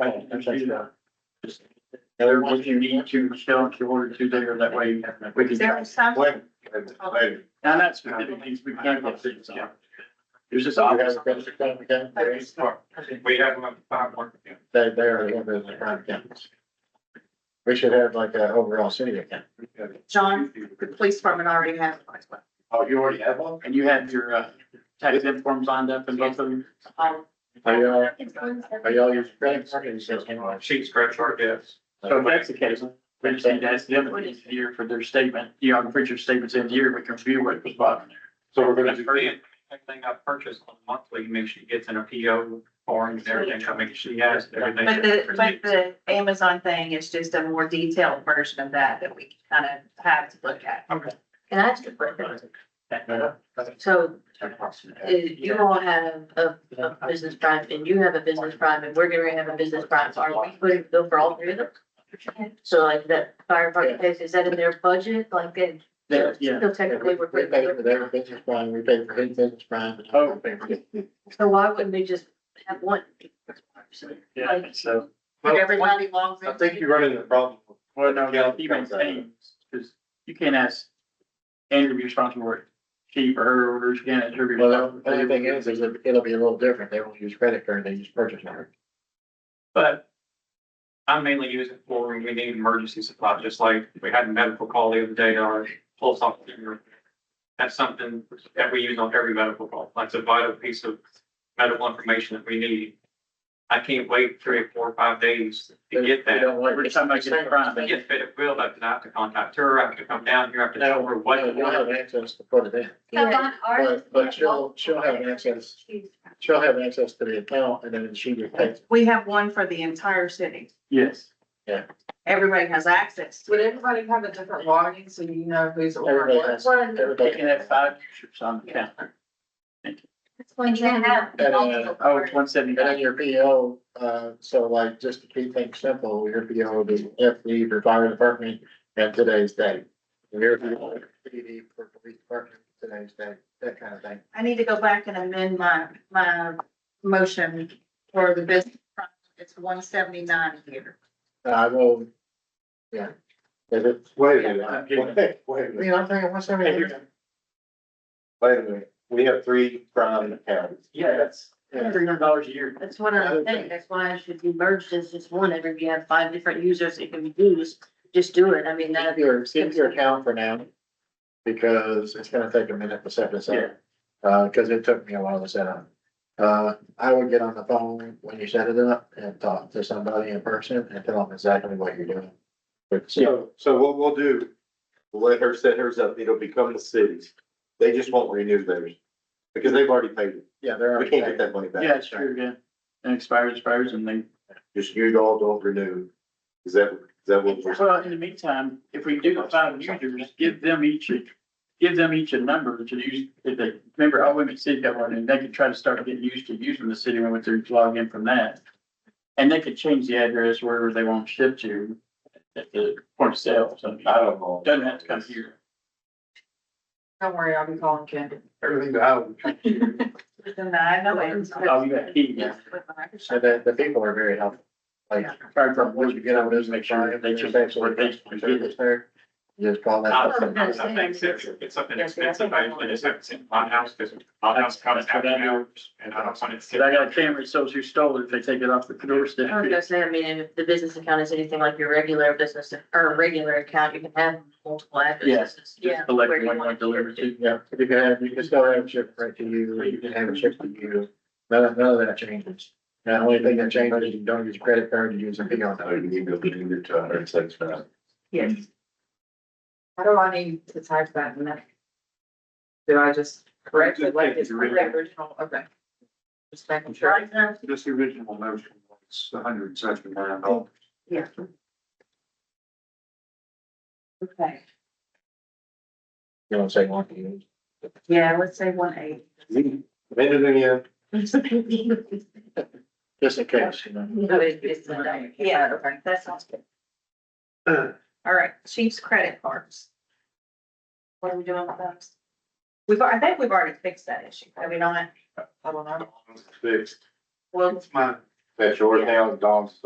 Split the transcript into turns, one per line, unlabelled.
I can do that. Just, Heather, what you need to, Michelle, if you order two there, that way you can. we can-
Is there a sound?
Wait, wait. Now, that's specific things we can't get things on. There's just. obvious-
We have them five more.
They, they're, they're the prime campus. We should have like a overall city account.
John, the police department already has one as well.
Oh, you already have one? And you have your, uh, tax exempt forms lined up and both of them?
Um,
Are
uh,
y'all, are y'all using credit card or just?
Sheet scratch our yes.
So if that's the case, we just need to ask the other piece here for their statement, you know, put your statements in here, we can review what was bought.
So we're gonna do. Everything I purchase on monthly, make sure she gets in a PO form and everything, I make sure she has everything.
But the, but the Amazon thing is just a more detailed version of that that we kind of have to look at.
Okay.
Can I ask a question? So uh, you all have a, a business prime and you have a business prime and we're gonna have a business prime. Are we putting bill for all three of them? So like that fire department pays, is that in their budget? Like they,
That, yeah.
so
We
technically we're
we
putting.
pay for their business prime, we pay for his business prime. and I pay for his.
So why wouldn't we just have one?
Yeah, so.
But everybody logs in.
you run into the problem.
Well, no, yeah, he maintains, because you can't ask Andrew to be responsible for it. She or her orders, you can't ask her. to be
Well, the only
responsible.
thing is, is that it'll be a little different. They won't use credit card, they use purchase card.
But I mainly use it for when we need emergency supply, just like we had a medical call the other day, our pulse officer. That's something that we use on every medical call. That's a vital piece of medical information that we need. I can't wait three or four or five days to get
They
that.
don't like.
Every time I get a crime,
I
they
get fit at will, I can have to contact her, I can come down here, I can
No,
tell her
no,
what.
you'll have access to put it in, but, but she'll, she'll have access, she'll have access to the account and then she just pays.
We have one for the entire city.
yes.
Everybody has access. to
Would
it.
everybody have a different login so you know who's
Everybody
ordering?
has,
One.
They
everybody
can have five users on the count.
You can have
And, uh,
multiple
Oh,
parties.
it's one seventy
And then
nine.
your PO, uh, so like, just to keep things simple, your PO will be FD for fire department and today's date. And Your PO is PD for police department, today's date, that kind of thing.
I need to go back and amend my, my motion for the business. front. It's one seventy-nine here.
Uh, I will, yeah. Is it,
Wait a
I'm
minute,
getting
wait, wait a
I
minute,
mean, I'm thinking, what's that?
wait a minute. We have three crime counties.
Yeah, that's
Yeah.
three hundred dollars a year.
That's what I'm thinking, that's why it should be merged as just one, every, you have five different users it can be used, just do it, I mean, that.
Keep your, keep your account for now, because it's gonna take a minute to set this up. Uh, cause it took me a while to set up. Uh, I would get on the phone when you set it up and talk to somebody in person and tell them exactly what you're doing. But
So, so what we'll do, we'll let her set hers up, it'll become the cities. They just won't renew theirs. Because they've already paid it.
Yeah, there are.
We can't get that money back.
Yeah, it's true, yeah. And expires, expires and they,
Just you all don't renew. Is that, is that what? we're-
well, in the meantime, if we do the five users, give them each, a- give them each a number to use. If they, remember, all women city got one and they could try to start getting used to using the city when they're logged in from that. And they could change the address wherever they want to ship to at the point of sale. So
I don't know.
doesn't have to come here.
Don't worry, I'll be calling Candy.
Everything that I would.
I know it's.
Oh, you got key, yeah.
So the, the people are very helpful. Like,
Fire
from
department,
what you get on this,
make sure they check
that's
what they can get it.
Just call that.
I
up.
I think it's, it's something expensive, I usually just have it in my house, because my house comes after hours, and I don't want it.
Cause I got a camera, so who stole it, if they take it off the doorstep.
I was gonna say, I mean, if the business account is anything like your regular business or regular account, you can have multiple addresses.
Just
Where
Collect
you
one,
want
one
it
delivered to.
Yeah, you can have, you can still have it shipped right to you, you can have it shipped to you. None, none of that changes. The only thing that changes is you don't use credit card, you use a big
No, you need to renew to a hundred and six now.
Yes. How do I need to type that in there? Do I just correct it like it's the original? Okay. Just making sure.
Right now,
This original motion was a hundred and seventy-nine dollars.
Okay,
You don't say one to you.
yeah, let's say one eight.
Amended it again.
Just in case, you know.
So it- it's the name.
Yeah.
Okay.
That sounds good. All right, chief's credit cards. What are we doing with those? We've, I think we've already fixed that issue, have we not?
I don't know.
Fixed.
Well,
That's yours now, Don's